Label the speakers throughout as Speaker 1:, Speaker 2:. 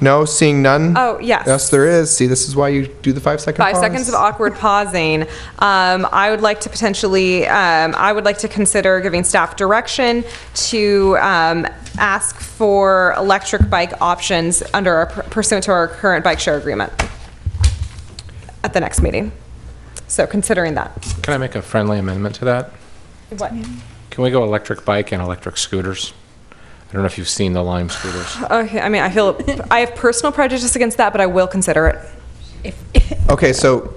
Speaker 1: No, seeing none?
Speaker 2: Oh, yes.
Speaker 1: Yes, there is. See, this is why you do the five second
Speaker 2: Five seconds of awkward pausing. Um, I would like to potentially, um, I would like to consider giving staff direction to um, ask for electric bike options under our pursuant to our current bike share agreement at the next meeting. So considering that.
Speaker 3: Can I make a friendly amendment to that?
Speaker 2: What?
Speaker 3: Can we go electric bike and electric scooters? I don't know if you've seen the Lime scooters.
Speaker 2: Okay, I mean, I feel, I have personal prejudice against that, but I will consider it.
Speaker 4: If,
Speaker 1: Okay, so,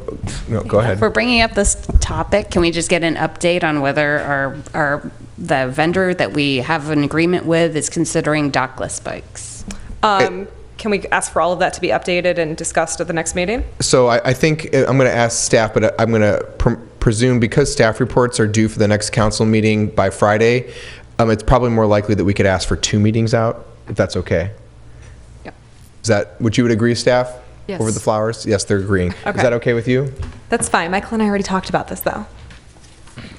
Speaker 1: no, go ahead.
Speaker 4: if we're bringing up this topic, can we just get an update on whether our, our, the vendor that we have an agreement with is considering dockless bikes?
Speaker 2: Um, Can we ask for all of that to be updated and discussed at the next meeting?
Speaker 1: So I, I think uh, I'm going to ask staff, but I'm going to pr- presume because staff reports are due for the next council meeting by Friday, um, it's probably more likely that we could ask for two meetings out, if that's okay.
Speaker 4: Yep.
Speaker 1: Is that, would you would agree, staff? Over
Speaker 4: Yes.
Speaker 1: the flowers? Yes, they're agreeing. Is
Speaker 2: Okay.
Speaker 1: that okay with you?
Speaker 2: That's fine. Michael and I already talked about this, though.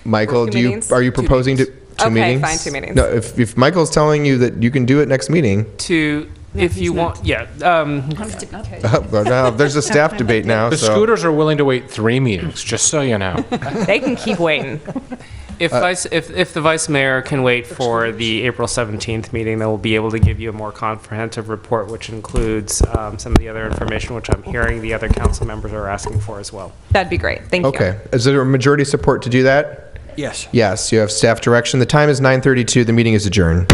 Speaker 1: Michael,
Speaker 2: Two
Speaker 1: do you,
Speaker 2: meetings?
Speaker 1: are you proposing to, two
Speaker 2: Okay,
Speaker 1: meetings?
Speaker 2: fine, two meetings.
Speaker 1: No, if, if Michael's telling you that you can do it next meeting,
Speaker 5: to, if you want, yeah, um,
Speaker 1: Oh, well, now, there's a staff debate now,
Speaker 3: The
Speaker 1: so-
Speaker 3: scooters are willing to wait three meetings, just so you know.
Speaker 2: They can keep waiting.
Speaker 5: if vice, if, if the vice mayor can wait for the April 17th meeting, then we'll be able to give you a more comprehensive report, which includes um, some of the other information, which I'm hearing the other council members are asking for as well.
Speaker 2: That'd be great. Thank you.
Speaker 1: Okay. Is there a majority support to do that?
Speaker 6: Yes.
Speaker 1: Yes, you have staff direction. The time is 9:32. The meeting is adjourned.